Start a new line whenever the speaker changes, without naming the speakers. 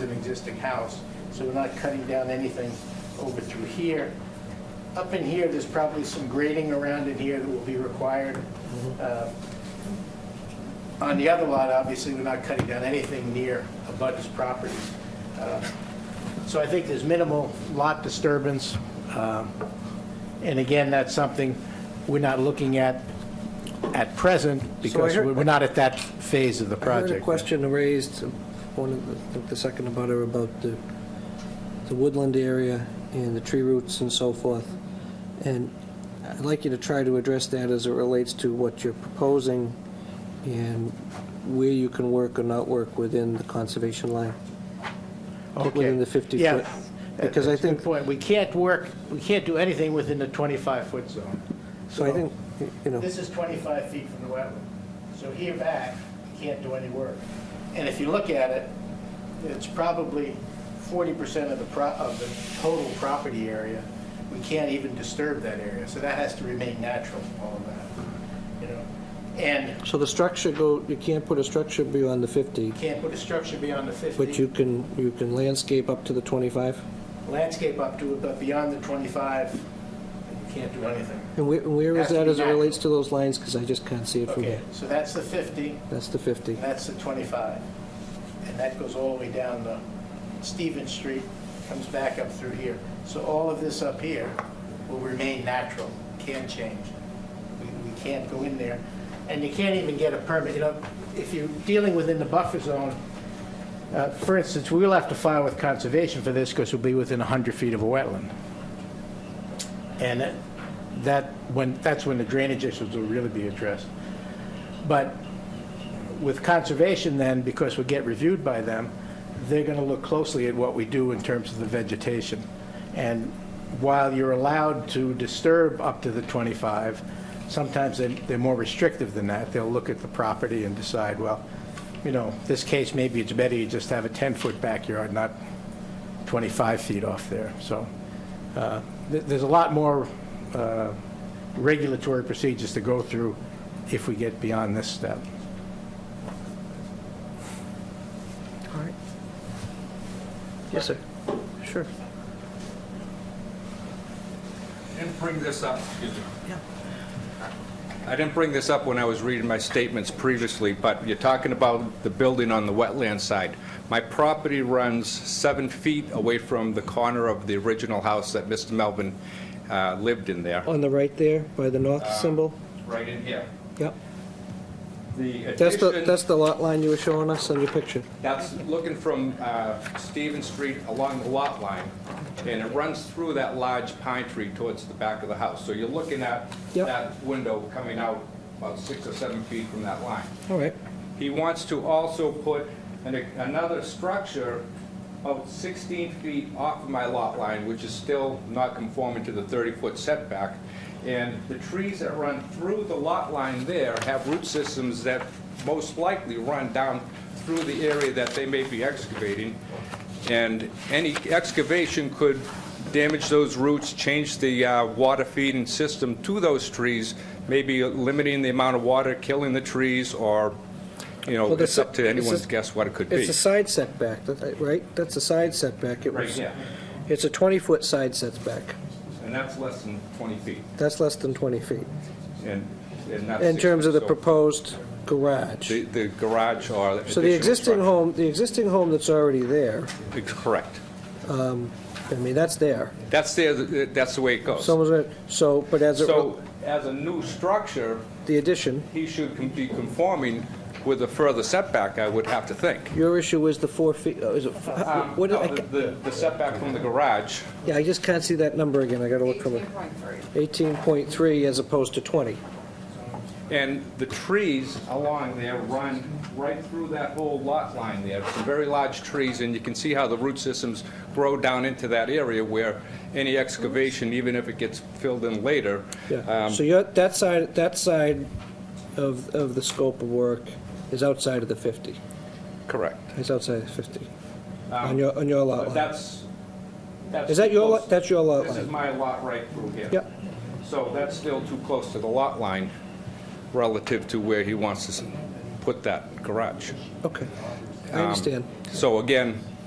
an existing house, so we're not cutting down anything over through here. Up in here, there's probably some grading around in here that will be required. Uh, On the other lot, obviously, we're not cutting down anything near a butter's property. Uh, So I think there's minimal lot disturbance. Um, And again, that's something we're not looking at at present because
heard-
we're not at that phase of the
I heard a
project.
question raised, one of the, I think the second about her, about the, the woodland area and the tree roots and so forth. And I'd like you to try to address that as it relates to what you're proposing and where you can work or not work within the conservation line,
Okay.
within the 50-foot.
Yeah.
Because I
That's a good
think,
point. We can't work, we can't do anything within the 25-foot zone.
so I think, you know,
This is 25 feet from the wetland. So here back, you can't do any work. And if you look at it, it's probably 40% of the, pro- of the total property area. We can't even disturb that area, so that has to remain natural, all of that, you know? And
so the structure go, you can't put a structure beyond the 50,
you can't put a structure beyond the 50.
but you can, you can landscape up to the 25?
Landscape up to it, but beyond the 25, you can't do anything.
And where, where
Has
is
to
that
be
as it
natural.
relates to those lines, because I just can't see it from
Okay,
here.
so that's the 50.
That's the 50.
And that's the 25. And that goes all the way down the Stevens Street, comes back up through here. So all of this up here will remain natural, can't change. We we can't go in there. And you can't even get a permit, you know, if you're dealing within the buffer zone, uh, for instance, we will have to file with conservation for this because we'll be within 100 feet of a wetland. And that- that, when, that's when the drainage issues will really be addressed. But with conservation then, because we get reviewed by them, they're going to look closely at what we do in terms of the vegetation. And while you're allowed to disturb up to the 25, sometimes they- they're more restrictive than that. They'll look at the property and decide, well, you know, this case, maybe it's better you just have a 10-foot backyard, not 25 feet off there. So uh, th- there's a lot more uh, regulatory procedures to go through if we get beyond this step.
All right. Yes, sir. Sure.
I didn't bring this up, excuse me. I didn't bring this up when I was reading my statements previously, but you're talking about the building on the wetland side. My property runs seven feet away from the corner of the original house that Mr. Melvin uh, lived in there.
On the right there, by the north
Uh,
symbol?
Right in here.
Yep.
The
That's the,
addition,
that's the lot line you were showing us on your picture.
that's looking from uh, Stevens Street along the lot line, and it runs through that large pine tree towards the back of the house. So you're looking at
Yep.
that window coming out about six or seven feet from that line.
All right.
He wants to also put an- another structure about 16 feet off of my lot line, which is still not conforming to the 30-foot setback. And the trees that run through the lot line there have root systems that most likely run down through the area that they may be excavating. And any excavation could damage those roots, change the uh, water feeding system to those trees, maybe limiting the amount of water, killing the trees, or, you know,
Well,
it's
that's-
up to
it's
anyone's
a-
guess what it could be.
It's a side setback, that- right? That's a side setback. It
Right,
was-
yeah.
It's a 20-foot side setback.
And that's less than 20 feet,
That's less than 20 feet.
and, and that's...
In terms of the
so
proposed garage.
The the garage or
So the
additional
existing
structure.
home, the existing home that's already there,
Correct.
I mean, that's there.
That's the, that's the way it goes.
Someone's, gonna- so, but as it,
So as a new structure,
the addition,
he should com- be conforming with a further setback, I would have to think.
your issue is the four feet, oh, is it,
Um,
what did
no,
I,
the- The the setback from the garage,
yeah, I just can't see that number again, I gotta look from it.
18.3.
18.3 as opposed to 20.
and the trees along there run right through that whole lot line there. Some very large trees, and you can see how the root systems grow down into that area where any excavation, even if it gets filled in later,
Yeah,
um,
so you're, that side, that side of, of the scope of work is outside of the 50,
correct.
is outside of 50, on your, on your lot
Um, But
line.
that's, that's...
Uh, Is that your,
too
lot?
close.
that's your lot
This is
line?
my lot right through here.
Yep.
So that's still too close to the lot line relative to where he wants to s- put that garage. Um,
Okay, I understand.
So again,